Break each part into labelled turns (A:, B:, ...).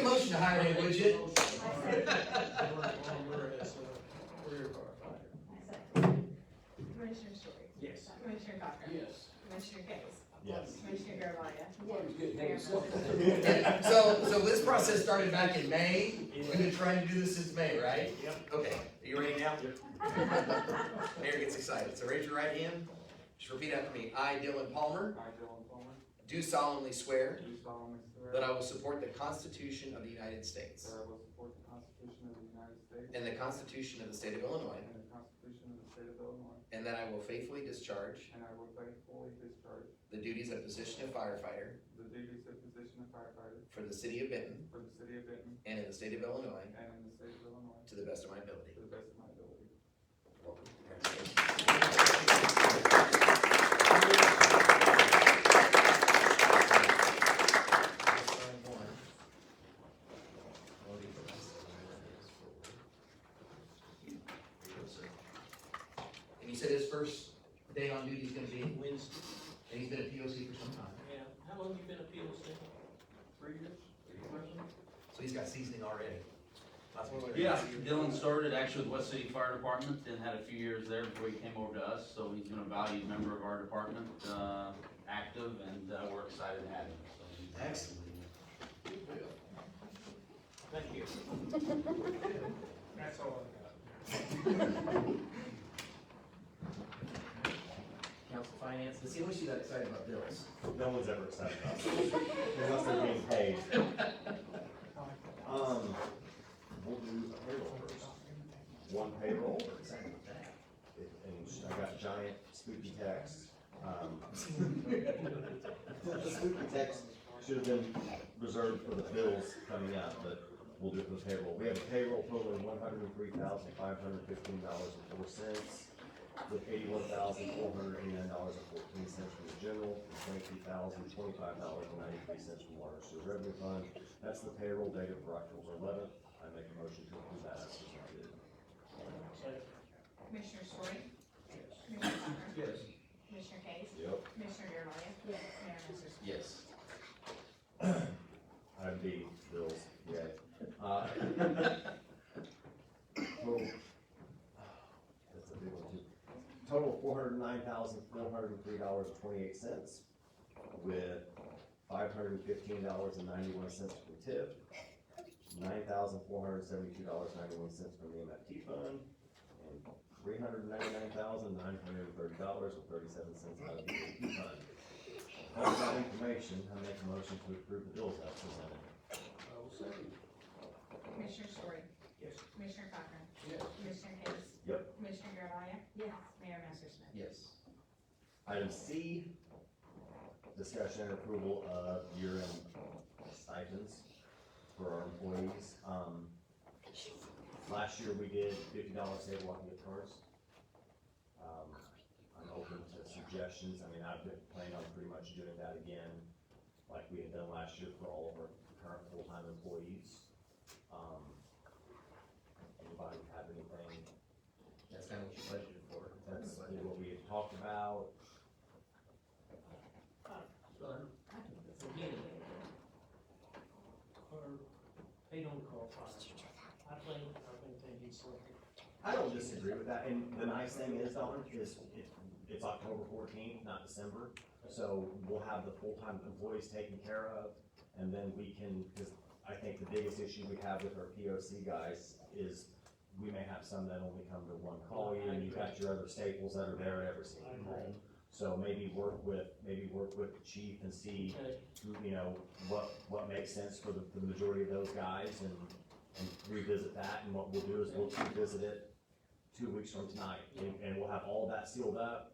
A: Friday, would you?
B: Commissioner Story?
C: Yes.
B: Commissioner Cochran?
C: Yes.
B: Commissioner Case?
D: Yes.
B: Commissioner Garvelia?
C: One's good,
B: Mayor Moore?
A: So, so this process started back in May, we've been trying to do this since May, right?
C: Yep.
A: Okay, are you ready now? Mayor gets excited, so raise your right hand, just repeat after me. I, Dylan Palmer,
E: I, Dylan Palmer,
A: do solemnly swear
E: do solemnly
A: that
E: swear that
A: I will support the Constitution of the United States
E: I will support the Constitution of the United States
A: and the Constitution of the State of Illinois,
E: and the Constitution of the State of Illinois,
A: and that I will faithfully discharge
E: and I will faithfully discharge
A: the duties of position of firefighter
E: the duties of position of firefighter
A: for the city of Benton
E: for the city of Benton
A: and in the state of Illinois
E: and in the state of Illinois
A: to the best of my ability.
E: to the best of my ability.
A: Welcome. And you said his first day on duty is gonna be, and
C: Wednesday.
A: he's been a POC for some time,
C: Yeah, how long you been a POC?
E: Three years?
A: so he's got seasoning already. Lots of experience.
F: Yeah, Dylan started actually with West City Fire Department, then had a few years there before he came over to us, so he's been a valued member of our department, uh, active, and, uh, we're excited to have him, so.
A: Excellent.
C: Thank you. That's all
A: Council Finance, let's see, I wish you got excited about bills.
D: No one's ever excited about this, unless they're being paid. Um, we'll do a payroll first. One payroll, and I got giant spooky text. Um, the Spooky text should have been reserved for the bills coming out, but we'll do it for the payroll. We have a payroll totaling one hundred and three thousand, five hundred and fifteen dollars and four cents with eighty-one thousand, four hundred eighty-nine dollars and fourteen cents from the general, and twenty-three thousand, twenty-five dollars and ninety-three cents from water and sewer revenue fund. That's the payroll dated for October eleventh. I make a motion to approve that as presented.
B: Commissioner Story? Commissioner Cochran?
C: Yes.
B: Commissioner Case?
D: Yep.
B: Commissioner Garvelia? Yes. Mayor Moore?
A: Yes.
D: I'd be Bill's, yeah. Uh, Total, that's a big one too. Total four hundred nine thousand, four hundred and three dollars and twenty-eight cents with five hundred and fifteen dollars and ninety-one cents from tip, nine thousand, four hundred and seventy-two dollars, ninety-one cents from the MFT fund, and three hundred ninety-nine thousand, nine hundred and thirty dollars and thirty-seven cents out of the MFT fund. All of that information, I make a motion to approve the bills as presented.
B: Commissioner Story?
C: Yes.
B: Commissioner Cochran?
C: Yes.
B: Commissioner Case?
D: Yep.
B: Commissioner Garvelia? Yes. Mayor Messersohn?
A: Yes.
D: Item C, discussion and approval of year-end stipends for our employees. Um, last year we did fifty dollars save walking at first. Um, I'm open to suggestions. I mean, I've been planning on pretty much doing that again, like we had done last year for all of our current full-time employees. Um, anybody have anything
A: That's kind of what you budgeted for.
D: that's what we had talked about.
C: Again, or paid on call fire. I think, I think they need something.
D: I don't disagree with that, and the nice thing is, Don, is it, it's October fourteenth, not December, so we'll have the full-time employees taken care of, and then we can, because I think the biggest issue we have with our P O C guys is we may have some that only come to one call, you know, you've got your other staples that are there at every single
C: I agree.
D: call. So maybe work with, maybe work with the chief and see,
C: Okay,
D: you know, what, what makes sense for the, the majority of those guys and, and revisit that, and what we'll do is we'll revisit it two weeks from tonight, and, and we'll have all that sealed up,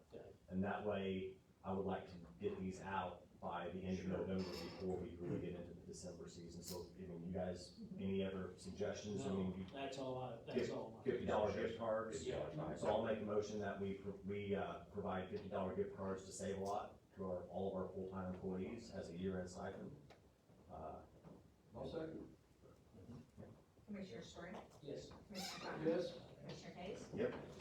D: and that way, I would like to get these out by the end of November before we really get into the December season, so, I mean, you guys, any other suggestions, I mean, you-
C: That's all I, that's all I.
D: fifty dollar gift cards?
C: Yeah.
D: So I'll make a motion that we, pro- we, uh, provide fifty dollar gift cards to Save a Lot to our, all of our full-time employees as a year-end stipend. Uh,
B: Commissioner Story?
C: Yes.
B: Commissioner Cochran? Commissioner Case?
D: Yep.